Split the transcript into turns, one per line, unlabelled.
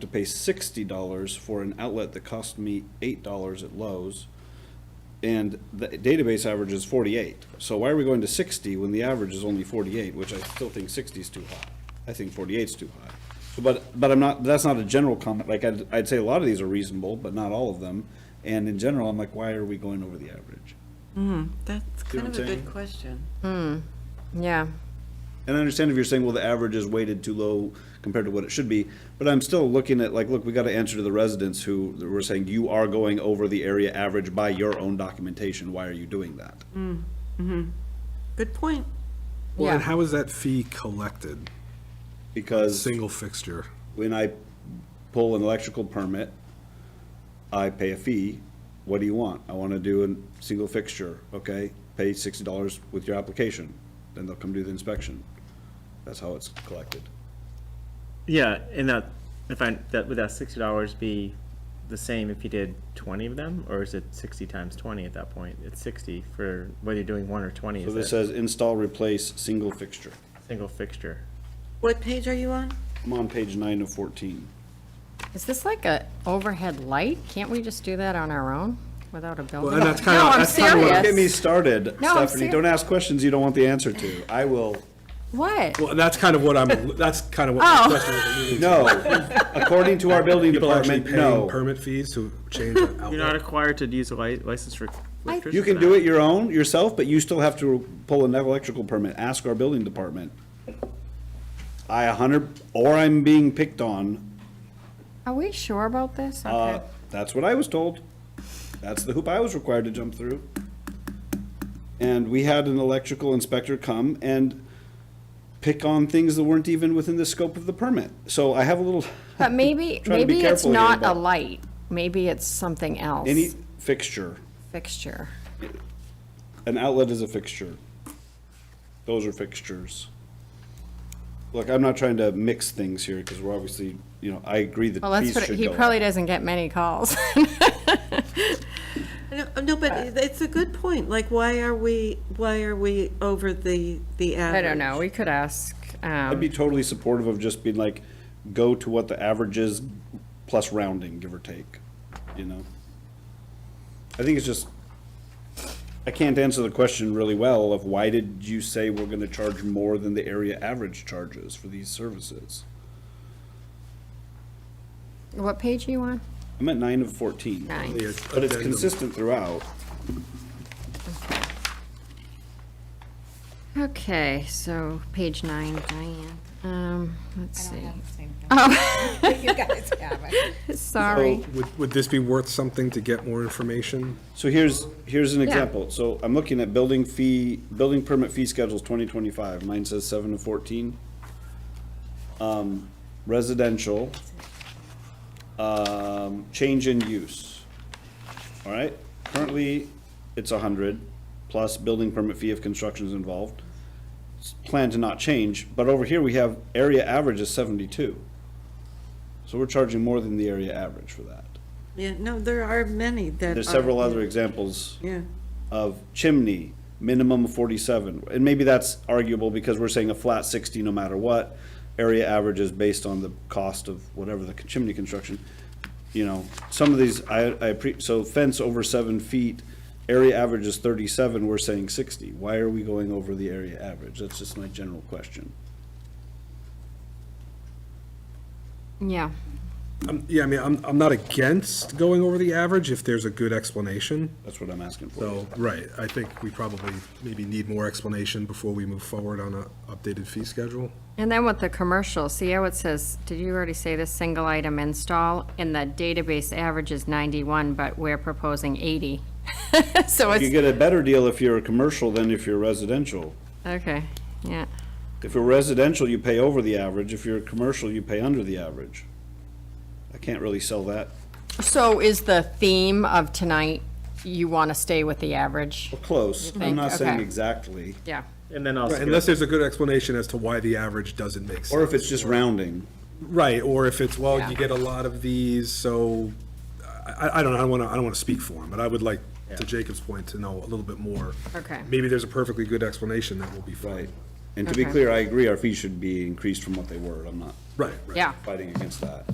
to pay sixty dollars for an outlet that cost me eight dollars at Lowe's. And the database average is forty-eight. So why are we going to sixty when the average is only forty-eight, which I still think 60 is too high? I think 48 is too high. So, But, but I'm not, that's not a general comment. Like, I'd, I'd say a lot of these are reasonable, but not all of them. And in general, I'm like, why are we going over the average?
That's
See what
kind
I'm
of a
saying?
good question.
Yeah,
And I understand if you're saying, well, the average is weighted too low compared to what it should be, but I'm still looking at, like, look, we gotta answer to the residents who were saying, you are going over the area average by your own documentation, why are you doing that?
Good point.
Well, and
Yeah.
how is that fee collected?
Because
Single fixture.
when I pull an electrical permit, I pay a fee, what do you want? I wanna do a single fixture, okay, pay sixty dollars with your application, then they'll come do the inspection. That's how it's collected.
Yeah, and that, if I, that, would that sixty dollars be the same if you did twenty of them, or is it sixty times twenty at that point? It's sixty for whether you're doing one or twenty,
So this
is that
says install, replace, single fixture.
single fixture?
What page are you on?
I'm on page nine of fourteen.
is this like a overhead light? Can't we just do that on our own without a building?
and that's kinda-
No, I'm
that's kinda what-
serious.
Get me started,
No, I'm
Stephanie.
ser-
Don't ask questions you don't want the answer to. I will,
What?
Well, that's kind of what I'm, that's kind of what my
Oh.
question was alluding to.
no. According to our building
People actually
department,
paying
no.
permit fees to change an
You're not
outlet.
required to use a li- license for electrician.
You can do it your own, yourself, but you still have to pull an electrical permit. Ask our building department. I a hundred, or I'm being picked on.
Are we sure about this?
Uh,
Okay.
that's what I was told. That's the hoop I was required to jump through. And we had an electrical inspector come and pick on things that weren't even within the scope of the permit. So I have a little.
But maybe,
trying to be
maybe it's
careful here,
not a
but-
light. Maybe it's something else.
Any fixture,
Fixture.
an outlet is a fixture. Those are fixtures. Look, I'm not trying to mix things here because we're obviously, you know, I agree that
Well, let's
these
put it,
should
he
go
probably
up.
doesn't get many calls.
No, no, but
Uh,
it's a good point. Like, why are we, why are we over the, the
I
average?
don't know. We could ask,
I'd
um,
be totally supportive of just being like, go to what the average is plus rounding, give or take, you know? I think it's just, I can't answer the question really well of why did you say we're gonna charge more than the area average charges for these services?
what page are you on?
I'm at nine of fourteen.
Nine.
Yeah,
But it's
addendum.
consistent throughout.
Okay, so page nine, Diane. Um, let's
I don't
see.
have the same
Oh,
thing. You guys have it.
sorry.
Would, would this be worth something to get more information?
So here's, here's an example. So I'm looking at building fee, building permit fee schedules twenty twenty-five. Mine says seven to fourteen. Um, residential. Um, change in use. All right, currently, it's a hundred plus building permit fee if construction is involved. It's Planned to not change, but over here we have area average is seventy-two. So we're charging more than the area average for that.
Yeah, no, there are many that
There's
are-
several other examples
Yeah,
of chimney, minimum of forty-seven. And maybe that's arguable because we're saying a flat sixty no matter what. Area average is based on the cost of whatever the chimney construction. You know, some of these, I, I, pre- so fence over seven feet, area average is thirty-seven, we're saying sixty. Why are we going over the area average? That's just my general question.
Yeah.
Um, Yeah, I mean, I'm, I'm not against going over the average if there's a good explanation.
That's what I'm asking for.
So, right, I think we probably maybe need more explanation before we move forward on a updated fee schedule.
And then with the commercial, see how it says, did you already say this single item install? And the database average is ninety-one, but we're proposing eighty. So
You
it's,
get a better deal if you're a commercial than if you're residential.
okay, yeah.
If you're residential, you pay over the average. If you're commercial, you pay under the average. I can't really sell that.
So is the theme of tonight, you want to stay with the average?
Well, close. I'm
think?
not saying
Okay.
exactly.
Yeah.
And then also,
Unless there's a good explanation as to why the average doesn't make sense.
Or if it's just rounding.
Right, or if it's, well,
Yeah.
you get a lot of these, so, I, I- I don't know, I don't want to, I don't want to speak for him, but I would like, to Jacob's point, to know a little bit more.
Okay.
Maybe there's a perfectly good explanation that will be fine.
Right. And to be
Okay.
clear, I agree, our fees should be increased from what they were. I'm not
Right, right.
Yeah.
fighting against that.